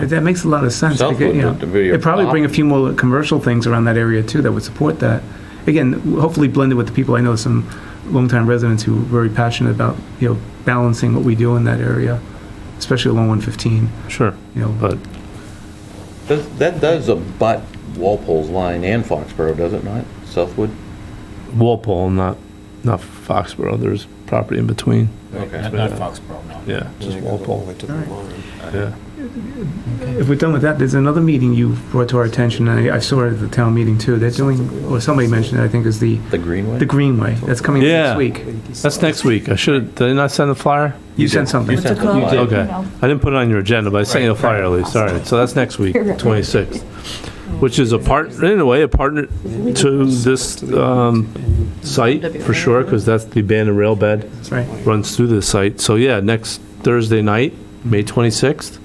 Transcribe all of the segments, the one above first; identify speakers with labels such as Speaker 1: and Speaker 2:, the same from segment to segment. Speaker 1: That that makes a lot of sense.
Speaker 2: Southwood,
Speaker 1: because, you know,
Speaker 2: the video
Speaker 1: It'd probably bring a
Speaker 2: pop.
Speaker 1: few more commercial things around that area too that would support that. Again, hopefully blended with the people, I know some longtime residents who are very passionate about, you know, balancing what we do in that area, especially along 115,
Speaker 3: Sure,
Speaker 1: you know.
Speaker 3: but
Speaker 2: Does- That does abut Walpole's line and Foxborough, does it not? Southwood?
Speaker 3: Walpole, not, not Foxborough, there's property in between,
Speaker 2: Okay.
Speaker 4: Not not Foxborough, no.
Speaker 3: yeah, just Walpole, yeah.
Speaker 1: If we're done with that, there's another meeting you brought to our attention, and I I saw it at the town meeting too. They're doing, or somebody mentioned it, I think, is the,
Speaker 2: The Greenway?
Speaker 1: the Greenway. That's coming
Speaker 3: Yeah.
Speaker 1: next week.
Speaker 3: That's next week, I should, did I not send a flyer?
Speaker 1: You sent something.
Speaker 2: You sent the
Speaker 5: You
Speaker 2: flyer.
Speaker 5: did.
Speaker 3: Okay, I didn't put it on your agenda, but I sent you a flyer early, sorry, so that's next week, twenty-sixth, which is a part, in a way, a partner to this, um, site, for sure, because that's the abandoned rail bed.
Speaker 1: That's right.
Speaker 3: runs through this site. So yeah, next Thursday night, May 26th,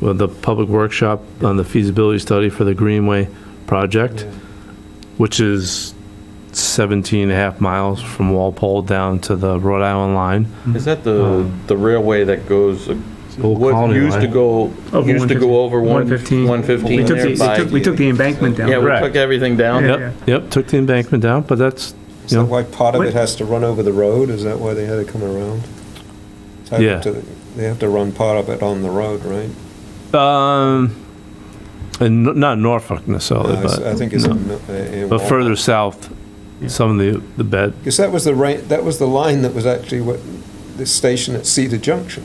Speaker 3: well, the public workshop on the feasibility study for the Greenway project, which is 17 and a half miles from Walpole down to the Rhode Island line.
Speaker 2: Is that the, the railway that goes, uh,
Speaker 3: Old
Speaker 2: what
Speaker 3: Colony
Speaker 2: used to
Speaker 3: Line.
Speaker 2: go,
Speaker 1: Over
Speaker 2: used
Speaker 1: 115.
Speaker 2: to go over one-
Speaker 1: 115.
Speaker 2: 115
Speaker 1: We took
Speaker 2: there
Speaker 1: the,
Speaker 2: by?
Speaker 1: we took- we took the embankment down.
Speaker 2: Yeah, we
Speaker 3: Correct.
Speaker 2: took everything down.
Speaker 1: Oh, Yeah.
Speaker 3: Yep, yep, took the embankment down, but that's,
Speaker 6: Is
Speaker 3: you
Speaker 6: that
Speaker 3: know,
Speaker 6: why part of
Speaker 1: What-
Speaker 6: it has to run over the road? Is that why they had to come around? So I
Speaker 3: Yeah.
Speaker 6: have to- They have to run part of it on the road, right?
Speaker 3: um, and no- not Norfolk necessarily,
Speaker 6: No, it's-
Speaker 3: Oh, but,
Speaker 6: I think it's.
Speaker 3: no.
Speaker 6: in- uh, in
Speaker 3: but
Speaker 6: Wal-
Speaker 3: further south, some of the, the bed,
Speaker 6: Because that was the ra that was the line that was actually what, the station at Cedar Junction.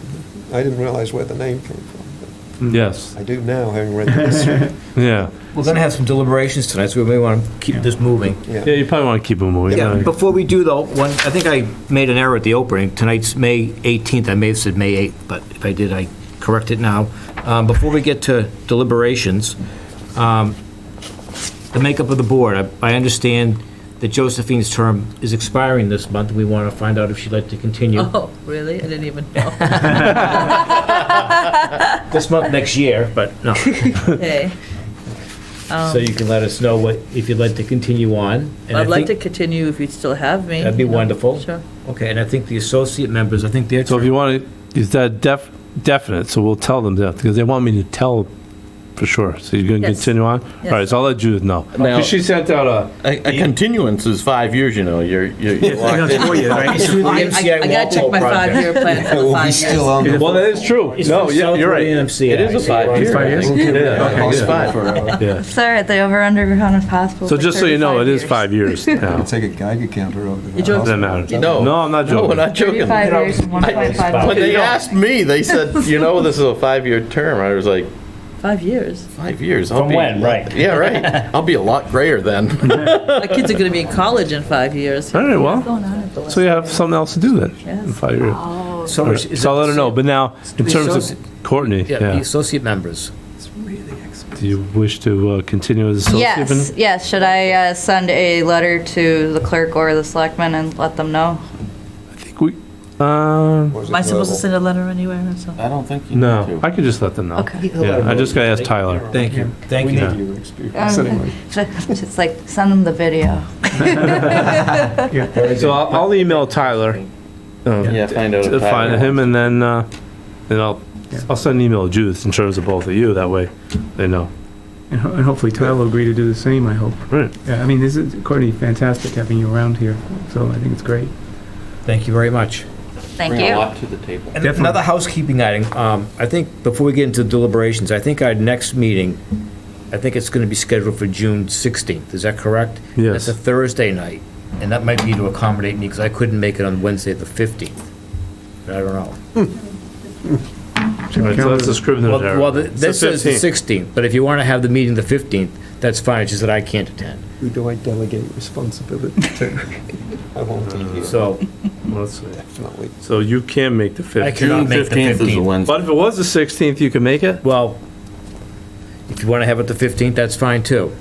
Speaker 6: I didn't realize where the name came from.
Speaker 1: Mm.
Speaker 3: yes,
Speaker 6: but I do now, having read the history.
Speaker 3: yeah.
Speaker 4: We're going to have some deliberations tonight, so we may want to keep this moving.
Speaker 3: Yeah, you probably want to keep them moving.
Speaker 4: Yeah,
Speaker 3: right?
Speaker 4: before we do though, one, I think I made an error at the opening. Tonight's May 18th, I may have said May 8th, but if I did, I correct it now. Um, Before we get to deliberations, um, the makeup of the board, I- I understand that Josephine's term is expiring this month, and we want to find out if she'd like to continue
Speaker 5: Oh, really? I didn't even know.
Speaker 4: this month, next year, but no.
Speaker 5: Hey,
Speaker 4: So you can let us know what, if you'd like to continue on. And I
Speaker 5: Um. I'd like to
Speaker 4: think-
Speaker 5: continue if you still have me.
Speaker 4: That'd be
Speaker 5: you know.
Speaker 4: wonderful.
Speaker 5: Sure.
Speaker 4: Okay, and I think the associate members, I think they're.
Speaker 3: So if you want to, is that def, definite, so we'll tell them that, because they want me to tell for sure. So you're going to
Speaker 5: Yes.
Speaker 3: continue on? All right,
Speaker 5: Yes.
Speaker 3: so I'll let Judith know.
Speaker 2: Now-
Speaker 3: 'Cause she sent out a,
Speaker 2: A a continuance is five years, you know, you're, you're you're
Speaker 1: I know,
Speaker 2: locked
Speaker 1: it's four
Speaker 2: in.
Speaker 1: years, right?
Speaker 4: It's through the
Speaker 5: I
Speaker 4: MCI
Speaker 5: I- I gotta check
Speaker 4: Walpole
Speaker 5: my
Speaker 4: project.
Speaker 5: five-year plan for the
Speaker 6: We'll be
Speaker 5: five
Speaker 6: Oh, still
Speaker 5: years.
Speaker 6: on the.
Speaker 3: well, that is true.
Speaker 4: It's
Speaker 3: No,
Speaker 4: from
Speaker 3: yeah, you're
Speaker 4: Southwood
Speaker 3: right.
Speaker 4: EMCI.
Speaker 2: It is a five year.
Speaker 1: five years?
Speaker 2: Yeah, it's five.
Speaker 3: Yeah.
Speaker 7: Sorry, the over under on possible.
Speaker 3: So just so you know, it is five years now.
Speaker 6: Take a Geiger counter over to the
Speaker 5: joking.
Speaker 3: Doesn't
Speaker 6: hospital.
Speaker 2: No.
Speaker 3: matter. No, I'm not
Speaker 2: No, we're
Speaker 3: joking.
Speaker 2: not joking.
Speaker 7: Thirty-five years and one
Speaker 2: I-
Speaker 7: point five.
Speaker 2: When they asked me, they said, you know, this is a five-year term. I was like,
Speaker 5: Five years.
Speaker 2: five years? I'll
Speaker 4: From
Speaker 2: be-
Speaker 4: when, right.
Speaker 2: Yeah, right. I'll be a lot grayer then.
Speaker 5: My kids are gonna be in college in five years.
Speaker 3: All right, well,
Speaker 7: Going on at the last-
Speaker 3: so you have something else to do then. in
Speaker 5: Yes.
Speaker 3: five years.
Speaker 4: So
Speaker 3: All right,
Speaker 4: is- is
Speaker 3: So I'll
Speaker 4: that
Speaker 3: let her know, but now, in
Speaker 4: the
Speaker 3: terms
Speaker 4: associ-
Speaker 3: of Courtney,
Speaker 4: Yeah, the
Speaker 3: yeah,
Speaker 4: associate members.
Speaker 3: do you wish to uh, continue as associate?
Speaker 7: Yes, yes. Should I uh, send a letter to the clerk or the selectman and let them know?
Speaker 3: I think we, uh,
Speaker 6: Was it
Speaker 5: Am I supposed to
Speaker 6: verbal?
Speaker 5: send a letter anywhere or something?
Speaker 2: I don't think you
Speaker 3: no, I could just let them know.
Speaker 7: Okay.
Speaker 3: Yeah, I just gotta ask Tyler.
Speaker 4: Thank you, thank
Speaker 6: We
Speaker 4: you.
Speaker 6: need your experience
Speaker 7: Um,
Speaker 6: anyway.
Speaker 7: Just like, send them the video.
Speaker 3: So I'll, I'll email Tyler. um,
Speaker 2: Yeah, find out.
Speaker 3: to
Speaker 2: if Tyler
Speaker 3: find him, and then, uh, then I'll, I'll send an email to Judith in terms of both of you, that way they know.
Speaker 1: And ho- and hopefully Tyler will agree to do the same, I hope.
Speaker 3: Right.
Speaker 1: Yeah, I mean, this is, Courtney, fantastic having you around here, so I think it's great.
Speaker 4: Thank you very much.
Speaker 7: Thank
Speaker 2: Bring a
Speaker 7: you.
Speaker 2: lot to the table.
Speaker 4: And
Speaker 1: Definitely.
Speaker 4: another housekeeping item, um, I think, before we get into deliberations, I think our next meeting, I think it's going to be scheduled for June 16th, is that correct?
Speaker 3: Yes.
Speaker 4: That's a Thursday night, and that might be to accommodate me, because I couldn't make it on Wednesday, the 15th. I don't know.
Speaker 3: All right, so that's the Scrivener's
Speaker 4: Well, well,
Speaker 3: error.
Speaker 4: the-
Speaker 3: It's the
Speaker 4: this says the
Speaker 3: 15th.
Speaker 4: 16th, but if you want to have the meeting the 15th, that's fine, it's just that I can't attend.
Speaker 6: Who do I delegate responsibility to? I won't take you,
Speaker 4: So
Speaker 3: Let's see.
Speaker 6: definitely.
Speaker 3: So you can make the
Speaker 4: I
Speaker 3: fifteenth.
Speaker 4: cannot make the
Speaker 2: 15th is a
Speaker 4: 15th.
Speaker 2: Wednesday.
Speaker 3: But if it was the sixteenth, you can make it?
Speaker 4: Well, if you want to have it the 15th, that's fine too.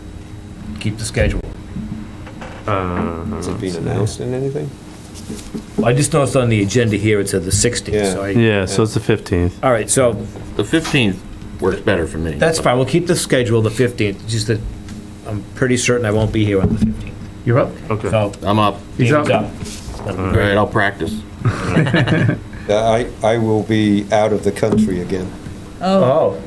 Speaker 4: Keep the schedule.
Speaker 6: Has it been announced in anything?
Speaker 4: I just noticed on the agenda here, it said the 16th, so I,
Speaker 3: Yeah, so it's the fifteenth.
Speaker 4: all right, so
Speaker 2: The 15th works better for me.
Speaker 4: that's fine, we'll keep the schedule the 15th, just that I'm pretty certain I won't be here on the 15th.
Speaker 1: You're up.
Speaker 3: Okay.
Speaker 4: So,
Speaker 2: I'm up.
Speaker 1: He's
Speaker 4: David's
Speaker 1: up.
Speaker 4: up.
Speaker 2: All right, I'll practice.
Speaker 6: Yeah, I, I will be out of the country again.
Speaker 5: Oh.
Speaker 4: Oh.